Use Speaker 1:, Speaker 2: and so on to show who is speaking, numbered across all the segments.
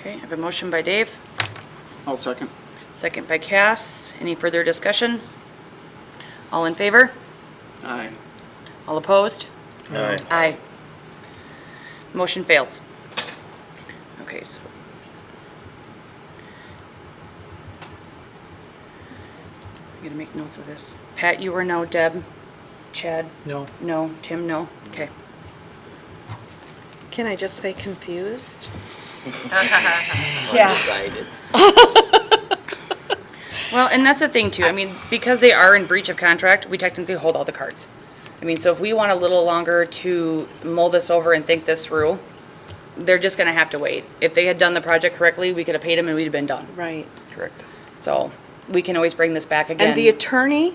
Speaker 1: Okay, I have a motion by Dave,
Speaker 2: I'll second.
Speaker 1: second by Cass. Any further discussion? All in favor?
Speaker 2: Aye.
Speaker 1: All opposed?
Speaker 3: Aye.
Speaker 1: Aye. Motion fails. Okay, so. I'm gonna make notes of this. Pat, you were no. Deb? Chad?
Speaker 3: No.
Speaker 1: No. Tim, no? Okay.
Speaker 4: Can I just say confused?
Speaker 5: undecided.
Speaker 1: Well, and that's the thing too. I mean, because they are in breach of contract, we technically hold all the cards. I mean, so if we want a little longer to mull this over and think this through, they're just gonna have to wait. If they had done the project correctly, we could have paid them and we'd have been done.
Speaker 4: Right.
Speaker 5: Correct.
Speaker 1: So we can always bring this back again.
Speaker 4: And the attorney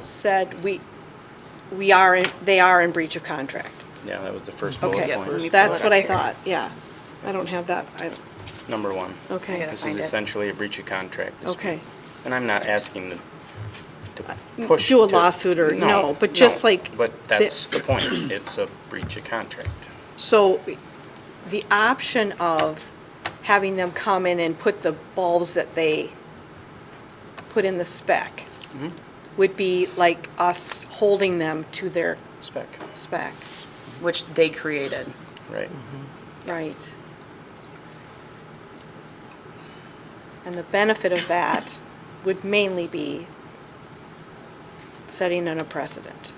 Speaker 4: said we, we are, in- they are in breach of contract.
Speaker 3: Yeah, that was the first bullet
Speaker 4: Okay,
Speaker 3: point,
Speaker 4: that's
Speaker 1: pull
Speaker 4: what
Speaker 1: it
Speaker 4: I
Speaker 1: up
Speaker 4: thought, yeah. I don't have that, I, don't-
Speaker 3: number one.
Speaker 4: okay,
Speaker 1: Yeah.
Speaker 3: This is
Speaker 1: Find it.
Speaker 3: essentially a breach of contract. dispute.
Speaker 4: okay. Uh,
Speaker 3: And I'm not asking to- to push.
Speaker 4: Do a
Speaker 3: to-
Speaker 4: lawsuit or- no, but just
Speaker 3: no,
Speaker 4: like
Speaker 3: But that's the point, it's a breach of contract.
Speaker 4: So the option of having them come in and put the bulbs that they put in the spec would be like us holding them to their
Speaker 3: Spec,
Speaker 4: spec,
Speaker 1: Which they created.
Speaker 3: right.
Speaker 4: Mm-hmm. right? And the benefit of that would mainly be setting in a precedent.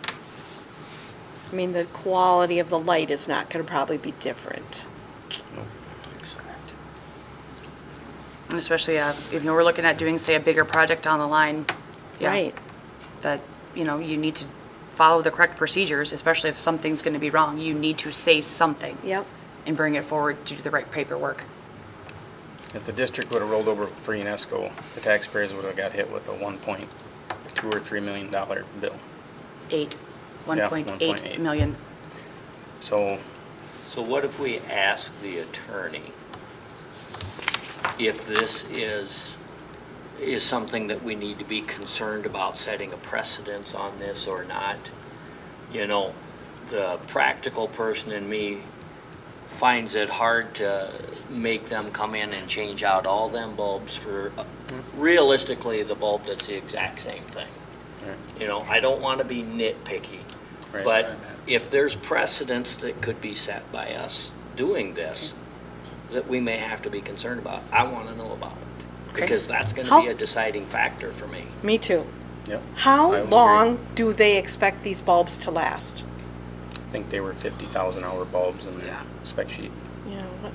Speaker 4: I mean, the quality of the light is not gonna probably be different.
Speaker 3: No.
Speaker 1: And especially, uh, if we're looking at doing, say, a bigger project down the line. yeah,
Speaker 4: Right.
Speaker 1: That, you know, you need to follow the correct procedures, especially if something's gonna be wrong. You need to say something.
Speaker 4: Yep.
Speaker 1: And bring it forward to do the right paperwork.
Speaker 3: If the district would've rolled over for UNESCO, the taxpayers would've got hit with a one point two or three million dollar bill.
Speaker 1: Eight, one
Speaker 3: Yeah,
Speaker 1: point
Speaker 3: 1.8.
Speaker 1: eight million.
Speaker 3: So,
Speaker 5: So what if we ask the attorney if this is, is something that we need to be concerned about setting a precedence on this or not? You know, the practical person in me finds it hard to make them come in and change out all them bulbs for uh, realistically, the bulb that's the exact same thing. You know, I don't want to be nitpicky,
Speaker 3: Right.
Speaker 5: but if there's precedents that could be set by us doing this, that we may have to be concerned about, I want to know about it.
Speaker 1: Okay.
Speaker 5: Because that's going to
Speaker 4: How-
Speaker 5: be a deciding factor for me.
Speaker 4: Me too.
Speaker 3: yep, I
Speaker 4: How
Speaker 3: will
Speaker 4: long do they expect these bulbs to last?
Speaker 3: I think they were fifty thousand hour bulbs in the
Speaker 5: Yeah.
Speaker 3: spec sheet.
Speaker 4: Yeah, what-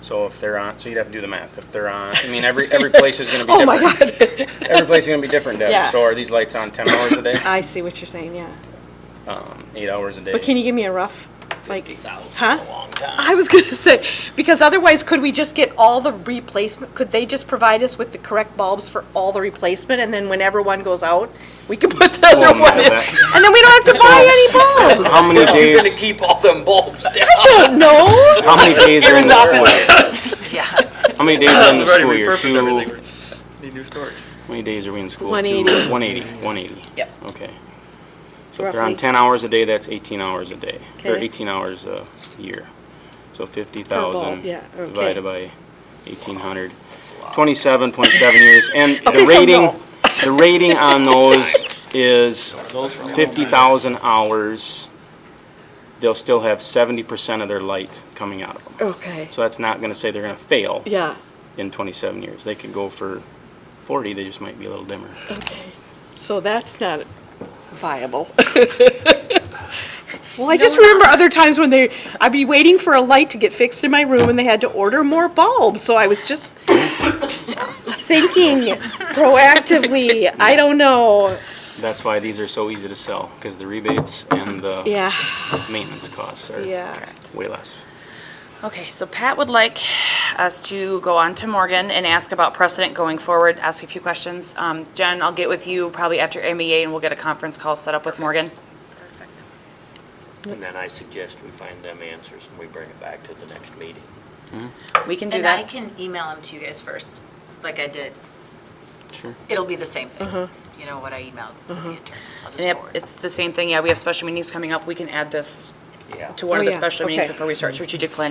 Speaker 3: So if they're on, so you'd have to do the math. If they're on, I mean, every, every place is gonna be
Speaker 4: Oh,
Speaker 3: different.
Speaker 4: my God.
Speaker 3: Every place is gonna be different, Deb.
Speaker 4: Yeah.
Speaker 3: So are these lights on ten hours a day?
Speaker 4: I see what you're saying, yeah.
Speaker 3: Um, eight hours a day?
Speaker 4: But can you give me a rough, like,
Speaker 5: 50,000 is
Speaker 4: huh?
Speaker 5: a long time.
Speaker 4: I was gonna say, because otherwise, could we just get all the replacement, could they just provide us with the correct bulbs for all the replacement, and then whenever one goes out, we can put the
Speaker 3: Oh,
Speaker 4: other
Speaker 3: no,
Speaker 4: one in?
Speaker 3: that-
Speaker 4: And then we don't have to buy any bulbs!
Speaker 3: How many
Speaker 5: You're going to
Speaker 3: days,
Speaker 5: keep all them bulbs down.
Speaker 4: No?
Speaker 3: how many days are in the school year? How many days are in the
Speaker 6: We've already
Speaker 3: school year?
Speaker 6: repurposed everything.
Speaker 3: Two,
Speaker 6: We Need new storage.
Speaker 3: how many days are we in school?
Speaker 4: 180.
Speaker 3: One eighty, one eighty.
Speaker 1: Yep.
Speaker 3: Okay. So if they're
Speaker 4: Roughly.
Speaker 3: on ten hours a day, that's eighteen hours a day, or
Speaker 4: Okay.
Speaker 3: eighteen hours a year. So fifty
Speaker 4: bulb,
Speaker 3: thousand
Speaker 4: yeah, okay.
Speaker 3: divided by eighteen hundred. Twenty-seven point seven years, and the
Speaker 4: Okay, so
Speaker 3: rating,
Speaker 4: no.
Speaker 3: the rating on those is fifty thousand hours. They'll still have seventy percent of their light coming out of them.
Speaker 4: Okay,
Speaker 3: So that's not gonna say they're gonna fail
Speaker 4: yeah,
Speaker 3: in twenty-seven years. They could go for forty, they just might be a little dimmer.
Speaker 4: okay. So that's not viable. Well, I just remember other times when they, I'd be waiting for a light to get fixed in my room, and they had to order more bulbs, so I was just thinking proactively, I don't know,
Speaker 3: That's why these are so easy to sell, because the rebates and the
Speaker 4: yeah,
Speaker 3: maintenance costs are
Speaker 4: yeah.
Speaker 3: way less.
Speaker 1: Okay, so Pat would like us to go on to Morgan and ask about precedent going forward, ask a few questions. Um, Jen, I'll get with you probably after MEA and we'll get a conference call set up with Morgan.
Speaker 5: And then I suggest we find them answers and we bring it back to the next meeting.
Speaker 1: We can do
Speaker 7: And I
Speaker 1: that.
Speaker 7: can email them to you guys first, like I did.
Speaker 3: Sure.
Speaker 7: It'll be the same thing, you know, what I emailed the attorney. I'll just
Speaker 1: Uh-huh. Yep,
Speaker 7: forward.
Speaker 1: it's the same thing, yeah, we have special meetings coming up, we can add this
Speaker 5: Yeah.
Speaker 1: to one
Speaker 4: Oh,
Speaker 1: of the
Speaker 4: yeah,
Speaker 1: special meetings
Speaker 4: okay.
Speaker 1: before we start strategic planning